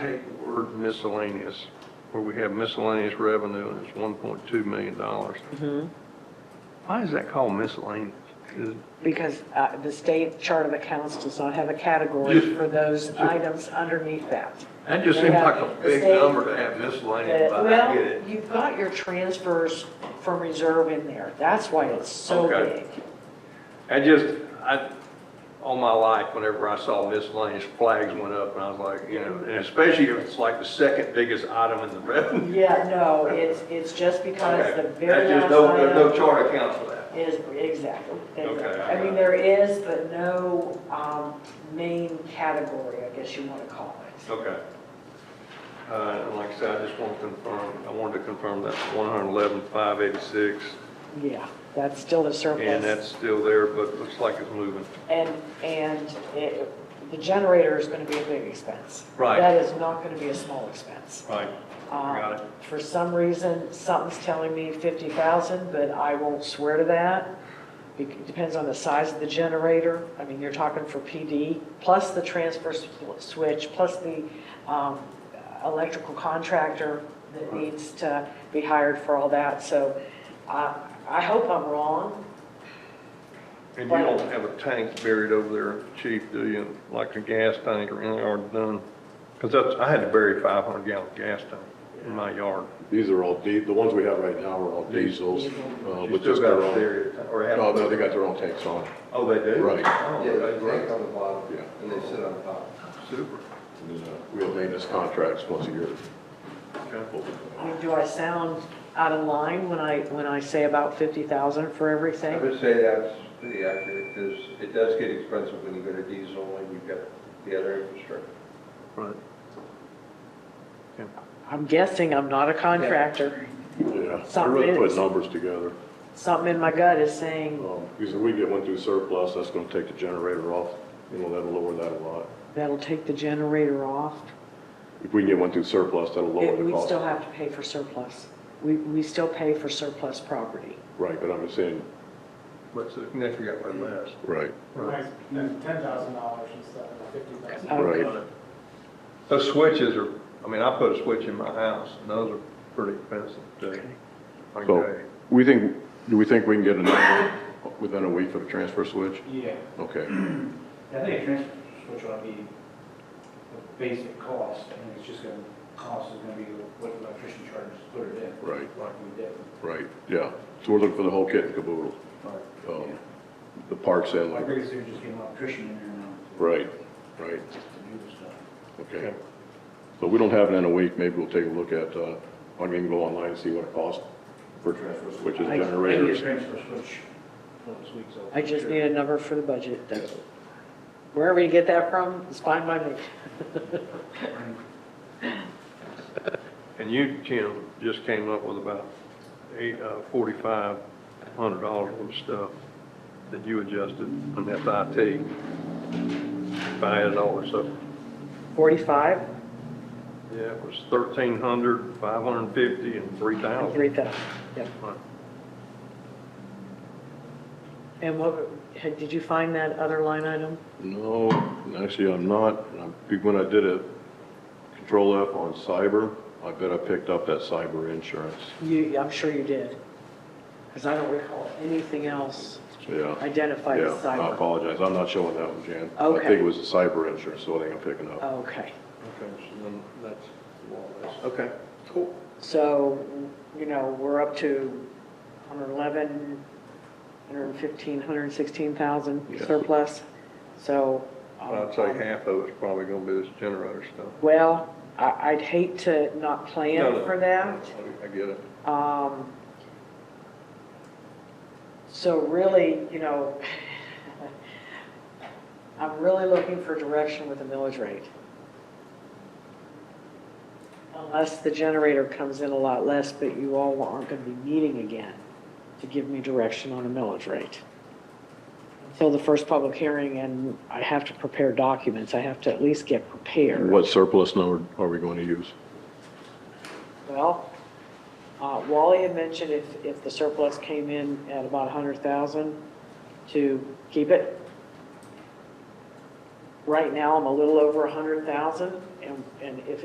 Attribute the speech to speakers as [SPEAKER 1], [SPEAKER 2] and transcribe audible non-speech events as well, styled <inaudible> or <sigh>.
[SPEAKER 1] Take the word miscellaneous, where we have miscellaneous revenue and it's one point two million dollars. Why is that called miscellaneous? Is-
[SPEAKER 2] Because uh, the state chart of accounts does not have a category for those items underneath that. Uh,
[SPEAKER 1] That just seems like a big number to have miscellaneous, but I get
[SPEAKER 2] Well,
[SPEAKER 1] it.
[SPEAKER 2] you've got your transfers from reserve in there. That's why it's so
[SPEAKER 1] Okay.
[SPEAKER 2] big.
[SPEAKER 1] I just, I, all my life, whenever I saw miscellaneous flags went up and I was like, you know, and especially if it's like the second biggest item in the revenue.
[SPEAKER 2] Yeah, no, it's, it's just because
[SPEAKER 1] Okay.
[SPEAKER 2] the
[SPEAKER 1] That's
[SPEAKER 2] very
[SPEAKER 1] just
[SPEAKER 2] last
[SPEAKER 1] no- There's no
[SPEAKER 2] item
[SPEAKER 1] chart account for that.
[SPEAKER 2] is, exactly.
[SPEAKER 1] Okay,
[SPEAKER 2] exactly.
[SPEAKER 1] I
[SPEAKER 2] I
[SPEAKER 1] got
[SPEAKER 2] mean,
[SPEAKER 1] it.
[SPEAKER 2] there is, but no um, main category, I guess you want to call it.
[SPEAKER 1] Okay. Uh, and like I said, I just want to confirm, I wanted to confirm that one hundred eleven, five eighty-six,
[SPEAKER 2] Yeah, that's still a surplus.
[SPEAKER 1] and that's still there, but it looks like it's moving.
[SPEAKER 2] And, and it, the generator is going to be a big expense.
[SPEAKER 1] Right.
[SPEAKER 2] That is not going to be a small expense.
[SPEAKER 1] Right.
[SPEAKER 2] Um,
[SPEAKER 1] Got it.
[SPEAKER 2] For some reason, something's telling me 50,000, but I won't swear to that. It Depends on the size of the generator. I mean, you're talking for PD, plus the transfer s- switch, plus the um, electrical contractor that needs to be hired for all that. So uh, I hope I'm wrong.
[SPEAKER 1] And you don't have a tank buried over there, chief, do you? Like a gas tank or anything already done? Because that's, I had to bury five hundred gallon gas tank in my yard.
[SPEAKER 3] These are all, di- the ones we have right now are all diesels. uh,
[SPEAKER 1] You
[SPEAKER 3] with
[SPEAKER 1] still
[SPEAKER 3] just their
[SPEAKER 1] got it
[SPEAKER 3] own- Oh,
[SPEAKER 1] there, or have?
[SPEAKER 3] No, no, they got their own tanks on,
[SPEAKER 1] Oh, they do?
[SPEAKER 3] Right.
[SPEAKER 1] Oh,
[SPEAKER 4] Yeah,
[SPEAKER 1] that's
[SPEAKER 4] they
[SPEAKER 1] great.
[SPEAKER 4] tank on the bottom,
[SPEAKER 3] Yeah.
[SPEAKER 4] and they sit on top.
[SPEAKER 1] Super.
[SPEAKER 3] And, uh, we have maintenance contracts once a year.
[SPEAKER 1] Okay.
[SPEAKER 2] I mean, do I sound out of line when I, when I say about 50,000 for
[SPEAKER 4] I
[SPEAKER 2] everything?
[SPEAKER 4] would say that's pretty accurate, because it does get expensive when you go to diesel and you've got the other infrastructure.
[SPEAKER 1] Right.
[SPEAKER 2] I'm guessing I'm not a contractor.
[SPEAKER 3] Yeah, they're
[SPEAKER 2] Something
[SPEAKER 3] really
[SPEAKER 2] is-
[SPEAKER 3] putting numbers together.
[SPEAKER 2] Something in my gut is saying
[SPEAKER 3] Um, Because if we get one through surplus, that's going to take the generator off, you know, that'll lower that a lot.
[SPEAKER 2] that'll take the generator off.
[SPEAKER 3] If we can get one through surplus, that'll lower
[SPEAKER 2] It-
[SPEAKER 3] the
[SPEAKER 2] We still
[SPEAKER 3] cost.
[SPEAKER 2] have to pay for surplus. We, we still pay for surplus property.
[SPEAKER 3] Right, but I'm just saying,
[SPEAKER 1] What's the, next we got one last.
[SPEAKER 3] right,
[SPEAKER 1] Right.
[SPEAKER 5] Ten thousand dollars instead of fifty thousand.
[SPEAKER 2] Okay.
[SPEAKER 3] right.
[SPEAKER 1] Those switches are, I mean, I put a switch in my house, and those are pretty expensive too.
[SPEAKER 3] So,
[SPEAKER 1] Okay.
[SPEAKER 3] we think, do we think we can get a number within a week for the transfer switch?
[SPEAKER 5] Yeah,
[SPEAKER 3] Okay,
[SPEAKER 5] I think a transfer switch ought to be the basic cost, I mean, it's just gonna, cost is gonna be what the electrician charges to put it in.
[SPEAKER 3] Right.
[SPEAKER 5] Like we did.
[SPEAKER 3] right, yeah. So we're looking for the whole kit and caboodle,
[SPEAKER 5] Yeah.
[SPEAKER 3] um, the parts and,
[SPEAKER 5] My
[SPEAKER 3] like-
[SPEAKER 5] biggest thing is just getting an electrician in there now. to-
[SPEAKER 3] right, right.
[SPEAKER 5] To do the stuff.
[SPEAKER 3] Okay. So we don't have it in a week, maybe we'll take a look at, uh, I mean, go online and see what it costs for transfers, which is
[SPEAKER 5] I- I need a
[SPEAKER 3] generators.
[SPEAKER 5] Transfer switch for this week's. open.
[SPEAKER 2] I just need a number for the budget. That's- Wherever you get that from, it's fine by me.
[SPEAKER 1] And you, Jim, just came up with about eight, uh, forty-five hundred dollars worth of stuff that you adjusted on FIT. If I added all this up,
[SPEAKER 2] 45,
[SPEAKER 1] yeah, it was thirteen hundred, five hundred and fifty, and three thousand.
[SPEAKER 2] 3,000. Yep. And what, had- did you find that other line item?
[SPEAKER 3] No, actually, I'm not. I'm- When I did it, Control F on cyber, I bet I picked up that cyber insurance.
[SPEAKER 2] You, I'm sure you did, because I don't recall anything else
[SPEAKER 3] Yeah.
[SPEAKER 2] identified
[SPEAKER 3] Yeah,
[SPEAKER 2] as
[SPEAKER 3] I
[SPEAKER 2] cyber.
[SPEAKER 3] apologize, I'm not showing that one, Jan. I
[SPEAKER 2] Okay.
[SPEAKER 3] think it was the cyber insurance, so I think I'm picking up.
[SPEAKER 2] Okay,
[SPEAKER 1] Okay, so then that's all this. Okay, cool.
[SPEAKER 2] so, you know, we're up to 111, 115, 116,000
[SPEAKER 3] Yeah.
[SPEAKER 2] surplus, so. um,
[SPEAKER 1] I'd say half of it's probably gonna be this generator stuff.
[SPEAKER 2] Well, I, I'd hate to not
[SPEAKER 1] No, no.
[SPEAKER 2] plan for that.
[SPEAKER 1] I get it.
[SPEAKER 2] Um, So really, you know, <laughs> I'm really looking for direction with the millage rate. Unless the generator comes in a lot less, but you all aren't going to be meeting again to give me direction on a millage rate. Until the first public hearing, and I have to prepare documents, I have to at least get prepared.
[SPEAKER 3] What surplus number are we going to use?
[SPEAKER 2] Well, uh, Wally had mentioned if, if the surplus came in at about 100,000 to keep it. Right now, I'm a little over 100,000, and, and if